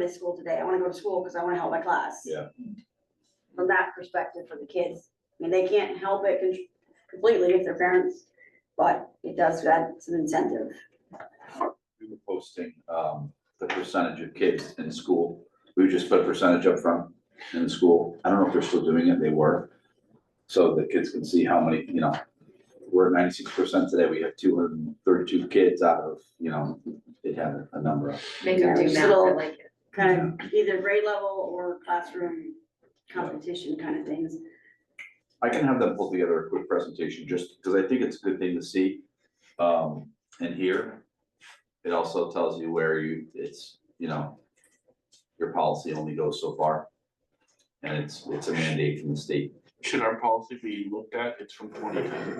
to school today, I wanna go to school because I wanna help my class. Yeah. From that perspective for the kids, I mean, they can't help it con- completely if their parents, but it does add some incentive. we were posting, um, the percentage of kids in school. We would just put a percentage up front in the school. I don't know if they're still doing it, they were. So the kids can see how many, you know, we're ninety-six percent today, we have two hundred and thirty-two kids out of, you know, it had a number of. Make them do Yeah, math, I little- like it. Kind of either grade level or classroom competition kind of things. I can have them pull together a quick presentation, just because I think it's a good thing to see, um, and hear. It also tells you where you, it's, you know, your policy only goes so far. And it's, it's a mandate from the state, Should our policy be looked at? It's from twenty ten,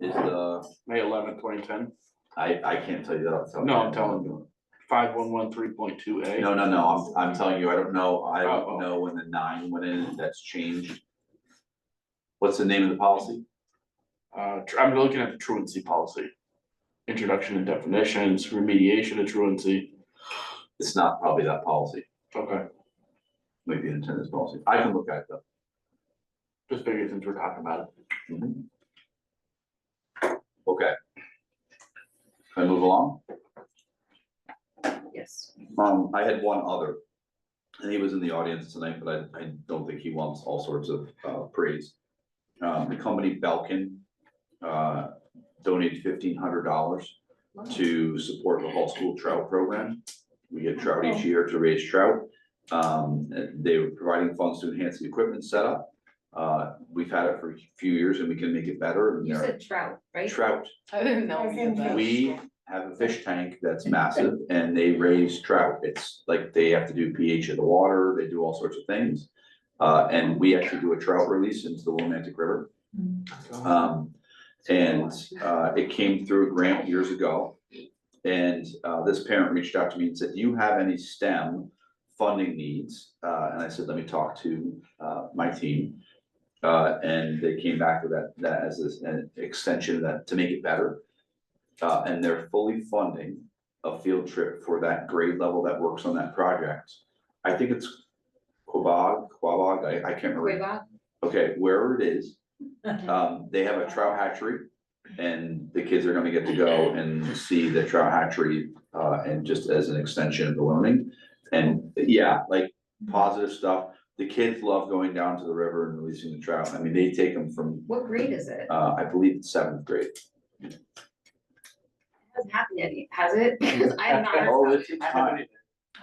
is the, May eleventh, twenty ten, I, I can't tell you that off the top of No, my I'm head. telling five one one three point two A. No, no, no, I'm, I'm telling you, I don't know, I Oh, don't oh. know when the nine went in, if that's changed. What's the name of the policy? Uh, tr- I'm looking at the truancy policy. Introduction and definitions, remediation of truancy. It's not probably that policy, Okay, maybe an attendance policy, I can look at it though. just figured since we're talking about it. Mm-hmm. Okay. Can I move along? Yes. Um, I had one other. And he was in the audience tonight, but I, I don't think he wants all sorts of, uh, praise. Um, the company Belkin, uh, donated fifteen hundred dollars to support the Hall School Trout Program. We get trout each Oh. year to raise trout. Um, and they were providing funds to enhance the equipment setup. Uh, we've had it for a few years and we can make it better and You there said trout, are right? trout I didn't know we did that. we have a fish tank that's massive and they raise trout. It's like they have to do pH of the water, they do all sorts of things. Uh, and we actually do a trout release into the Willimantic River. Um, and, uh, it came through a grant years ago. And, uh, this parent reached out to me and said, do you have any STEM funding needs? Uh, and I said, let me talk to, uh, my team. Uh, and they came back with that, that as this- an extension of that to make it better. Uh, and they're fully funding a field trip for that grade level that works on that project. I think it's Quabog, Quabog, I, I can't Wait, remember. Bob? Okay, wherever it is, um, they have a trout hatchery. And the kids are gonna get to go and see the trout hatchery, uh, and just as an extension of the learning. And yeah, like positive stuff. The kids love going down to the river and releasing the trout. I mean, they take them from, What grade is it? uh, I believe it's seventh grade. Hasn't happened yet, has it? Because I have not heard Oh, about it's it. it's time.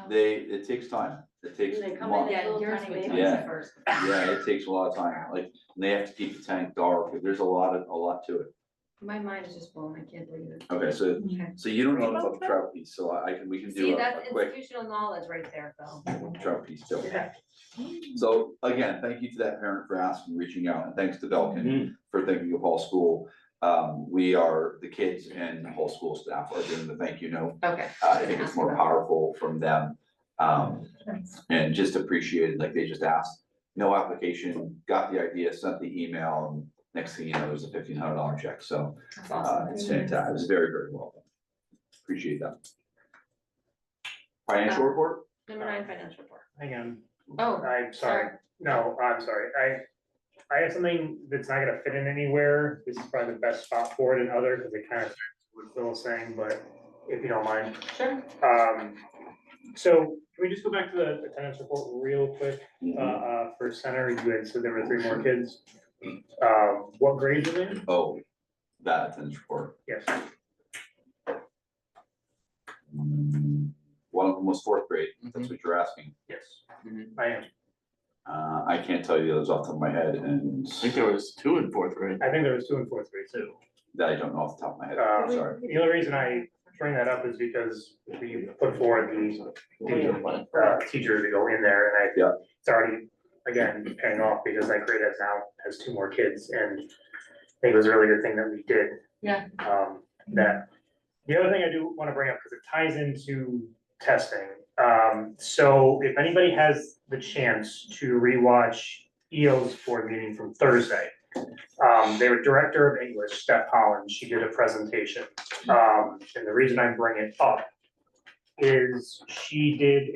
They, it takes time, it takes They come months, in Yeah, yours Little tiny would come baby. first. yeah, it takes a lot of time, like, and they have to keep the tank dark, there's a lot of, a lot to it. My mind is just blown, I can't believe it. Okay, so, Okay. so you don't know about the trout piece, so I I can, we can See, do a a that's quick institutional knowledge right there, Phil. trout piece too. Okay. So again, thank you to that parent for asking, reaching out, and thanks to Mhm. Belkin for thinking of Hall School. Um, we are, the kids and the whole school staff are doing the thank you note Okay. Uh, I think it's more powerful from them. Um, and just appreciated, like they just asked, no application, got the idea, sent the email, and next thing you know, there's a fifteen hundred dollar check, so, That's uh, awesome. it's fantastic, it's very, very well. done. Appreciate that. Financial report? Number nine, financial report. Hang on, Oh, I'm sorry. sorry, no, I'm sorry, I, I have something that's not gonna fit in anywhere, this is probably the best spot for it and other, because it kind of, what Phil was saying, but if you don't mind. Sure. Um, so can we just go back to the attendance report real quick, uh, uh, for center, you had said there were three more kids. Um, what grades are they in? Oh, that attendance report. Yes, Mm, One of them was fourth grade, if that's what you're asking. yes, I am, Uh, I can't tell you those off the top of my head, and I think there was two in fourth grade. I think there was two in fourth grade too. that I don't know off the top of my head, Uh, sorry. The only reason I bring that up is because we put forward the Yeah. uh, teacher to go in there and I. Yeah. It's already, again, paying off because that grade has now has two more kids and I think it was a really good thing that we did. Yeah. Um, that, the other thing I do wanna bring up, cause it ties into testing, um, so if anybody has the chance to rewatch EO's board meeting from Thursday. Um, their director of English, Steph Holland, she did a presentation, um, and the reason I bring it up is she did